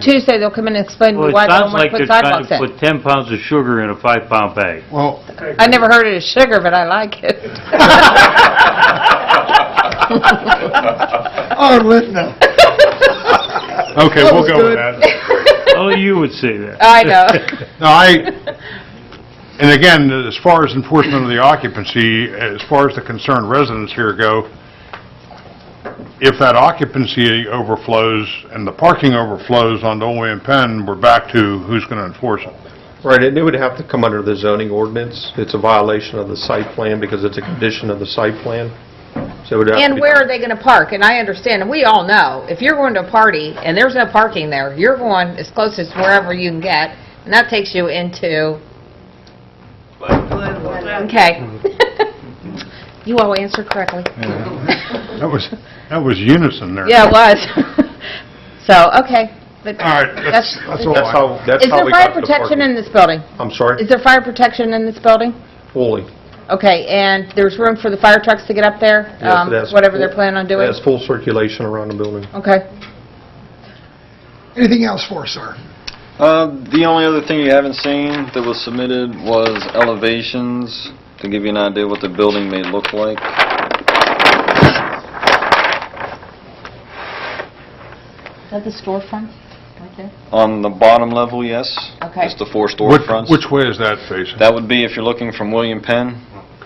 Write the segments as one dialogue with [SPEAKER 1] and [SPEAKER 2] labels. [SPEAKER 1] Tuesday, they'll come in and explain to
[SPEAKER 2] Well,
[SPEAKER 1] me
[SPEAKER 2] it
[SPEAKER 1] why they don't
[SPEAKER 2] sounds
[SPEAKER 1] want
[SPEAKER 2] like
[SPEAKER 1] to put
[SPEAKER 2] they're trying
[SPEAKER 1] sidewalks
[SPEAKER 2] to
[SPEAKER 1] in.
[SPEAKER 2] put 10 pounds of sugar in a five-pound bag.
[SPEAKER 3] Well,
[SPEAKER 1] I never heard it as sugar, but I like it.
[SPEAKER 3] oh, listen now.
[SPEAKER 4] Okay,
[SPEAKER 3] That
[SPEAKER 4] we'll
[SPEAKER 3] was
[SPEAKER 4] go
[SPEAKER 3] good.
[SPEAKER 4] with that.
[SPEAKER 2] Only Oh, you would say that.
[SPEAKER 1] I know.
[SPEAKER 4] No, I, and again, as far as enforcement of the occupancy, as far as the concerned residents here go, if that occupancy overflows and the parking overflows on Old William Penn, we're back to who's going to enforce it.
[SPEAKER 5] Right, and it would have to come under the zoning ordinance. It's a violation of the site plan because it's a condition of the site plan. So it would have to be...
[SPEAKER 6] And where are they going to park? And I understand, and we all know, if you're going to a party and there's no parking there, you're going as close as wherever you can get, and that takes you into... Okay. You all answered correctly.
[SPEAKER 4] That was, that was unison there.
[SPEAKER 1] Yeah, it was. So, okay. but
[SPEAKER 4] All right, that's, that's all
[SPEAKER 5] That's
[SPEAKER 4] I...
[SPEAKER 5] how, that's
[SPEAKER 1] Is
[SPEAKER 5] how
[SPEAKER 1] there
[SPEAKER 5] we
[SPEAKER 1] fire
[SPEAKER 5] got to the
[SPEAKER 1] protection in
[SPEAKER 5] parking.
[SPEAKER 1] this building?
[SPEAKER 5] I'm sorry?
[SPEAKER 1] Is there fire protection in this building?
[SPEAKER 5] Fully.
[SPEAKER 1] Okay, and there's room for the fire trucks to get up there?
[SPEAKER 5] Yes,
[SPEAKER 1] um,
[SPEAKER 5] it has
[SPEAKER 1] Whatever
[SPEAKER 5] full-
[SPEAKER 1] they're planning on
[SPEAKER 5] It
[SPEAKER 1] doing?
[SPEAKER 5] has full circulation around the building.
[SPEAKER 1] Okay.
[SPEAKER 3] Anything else for us, sir?
[SPEAKER 7] Uh, The only other thing you haven't seen that was submitted was elevations, to give you an idea what the building may look like.
[SPEAKER 6] Is that the storefront right there?
[SPEAKER 7] On the bottom level, yes.
[SPEAKER 6] Okay.
[SPEAKER 7] It's the four
[SPEAKER 4] Which-
[SPEAKER 7] storefronts.
[SPEAKER 4] Which way is that facing?
[SPEAKER 7] That would be if you're looking from William Penn,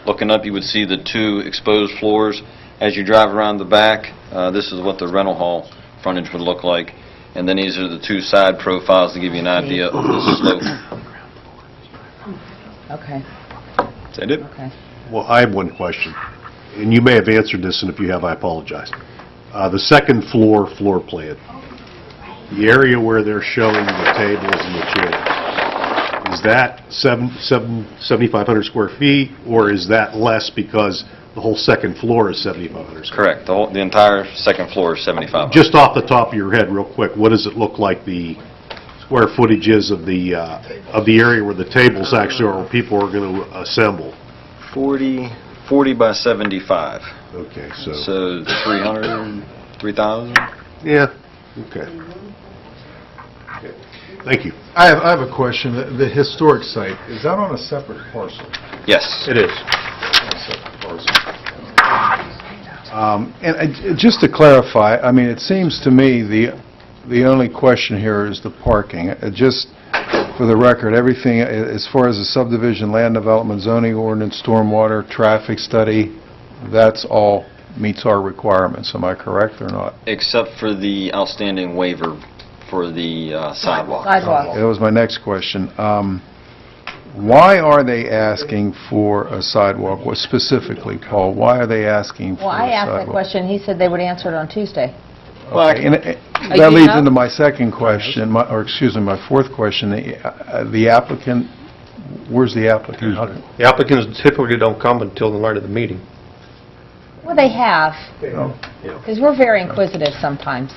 [SPEAKER 7] looking up, you would see the two exposed floors. As you drive around the back, uh, this is what the rental hall frontage would look like. And then these are the two side profiles to give you an idea of the slope.
[SPEAKER 6] Okay,
[SPEAKER 7] Is that it?
[SPEAKER 6] okay.
[SPEAKER 8] Well, I have one question, and you may have answered this, and if you have, I apologize. Uh, The second floor, floor plan, the area where they're showing the tables and the chairs, is that seven- seven- 7,500 square feet, or is that less because the whole second floor is 7,500 square?
[SPEAKER 7] Correct. The whole, the entire second floor is 75.
[SPEAKER 8] Just off the top of your head, real quick, what does it look like the square footage is of the, uh, of the area where the tables actually are, where people are going to assemble?
[SPEAKER 7] 40, 40 by 75.
[SPEAKER 8] Okay,
[SPEAKER 7] So 300, 3,000?
[SPEAKER 8] Yeah, okay. Thank you.
[SPEAKER 3] I have, I have a question. The- The historic site, is that on a separate parcel?
[SPEAKER 7] Yes.
[SPEAKER 8] It is.
[SPEAKER 9] Um, And I- just to clarify, I mean, it seems to me the, the only question here is the parking. Uh, Just for the record, everything, a- as far as the subdivision, land development, zoning ordinance, stormwater, traffic study, that's all meets our requirements, am I correct or not?
[SPEAKER 7] Except for the outstanding waiver for the uh, sidewalk.
[SPEAKER 1] Sidewalk.
[SPEAKER 9] That was my next question. Um, Why are they asking for a sidewalk? What specifically, Paul, why are they asking for a
[SPEAKER 1] Well, I asked that
[SPEAKER 9] sidewalk?
[SPEAKER 1] question. He said they would answer it on Tuesday.
[SPEAKER 9] Okay, and it-
[SPEAKER 1] Are
[SPEAKER 9] That
[SPEAKER 1] you
[SPEAKER 9] leads
[SPEAKER 1] up?
[SPEAKER 9] into my second question, my- or excuse me, my fourth question. The uh, the applicant, where's the applicant? How-
[SPEAKER 5] The applicants typically don't come until the night of the meeting.
[SPEAKER 1] Well, they have. Because we're very inquisitive sometimes.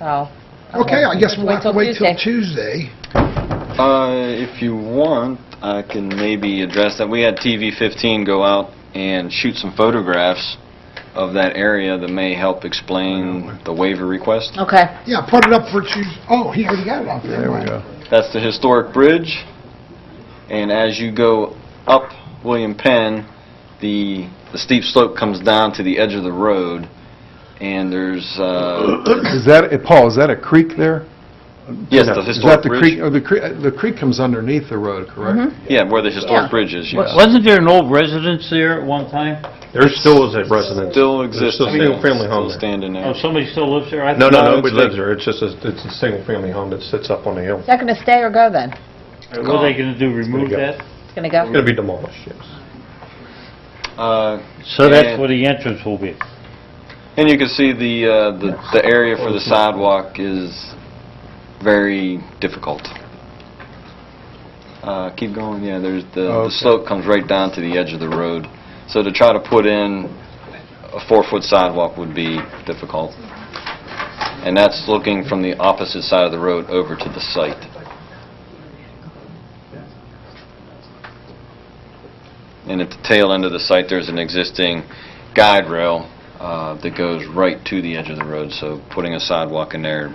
[SPEAKER 1] So.
[SPEAKER 3] Okay, I guess we'll have to wait till Tuesday.
[SPEAKER 1] Tuesday.
[SPEAKER 7] Uh, If you want, I can maybe address that. We had TV15 go out and shoot some photographs of that area that may help explain the waiver request.
[SPEAKER 1] Okay.
[SPEAKER 3] Yeah, put it up for Tuesday. Oh, he already got it up there.
[SPEAKER 9] There we go.
[SPEAKER 7] That's the historic bridge, and as you go up William Penn, the the steep slope comes down to the edge of the road, and there's, uh,
[SPEAKER 9] Is that, eh, Paul, is that a creek there?
[SPEAKER 7] yes, the
[SPEAKER 9] Is that
[SPEAKER 7] historic
[SPEAKER 9] the
[SPEAKER 7] bridge.
[SPEAKER 9] creek, or the creek, eh, the creek comes underneath the road,
[SPEAKER 1] Mm-hmm.
[SPEAKER 9] correct?
[SPEAKER 7] Yeah, where the historic
[SPEAKER 1] Yeah.
[SPEAKER 7] bridge is, yes.
[SPEAKER 2] Wasn't there an old residence there at one time?
[SPEAKER 5] There still is a residence.
[SPEAKER 7] Still
[SPEAKER 5] There's
[SPEAKER 7] exists.
[SPEAKER 5] still a single-family home
[SPEAKER 7] Still
[SPEAKER 5] there.
[SPEAKER 7] standing
[SPEAKER 2] Oh,
[SPEAKER 7] there.
[SPEAKER 2] somebody still lives there? I
[SPEAKER 5] No,
[SPEAKER 2] thought-
[SPEAKER 5] no, nobody
[SPEAKER 7] it's like-
[SPEAKER 5] lives there. It's just, a it's a single-family home that sits up on the hill.
[SPEAKER 1] Is that going to stay or go then?
[SPEAKER 2] What are they going to do, remove
[SPEAKER 5] go.
[SPEAKER 2] that?
[SPEAKER 1] It's going to
[SPEAKER 5] It's
[SPEAKER 1] go?
[SPEAKER 5] going to be demolished, yes. Oh.
[SPEAKER 7] Uh,
[SPEAKER 2] So that's
[SPEAKER 7] and-
[SPEAKER 2] where the entrance will be?
[SPEAKER 7] And you can see the, uh, the the area for the sidewalk is very difficult. Uh, Keep going, yeah, there's, the the
[SPEAKER 9] Okay.
[SPEAKER 7] slope comes right down to the edge of the road. So to try to put in a four-foot sidewalk would be difficult. And that's looking from the opposite side of the road over to the site. And at the tail end of the site, there's an existing guide rail uh, that goes right to the edge of the road, so putting a sidewalk in there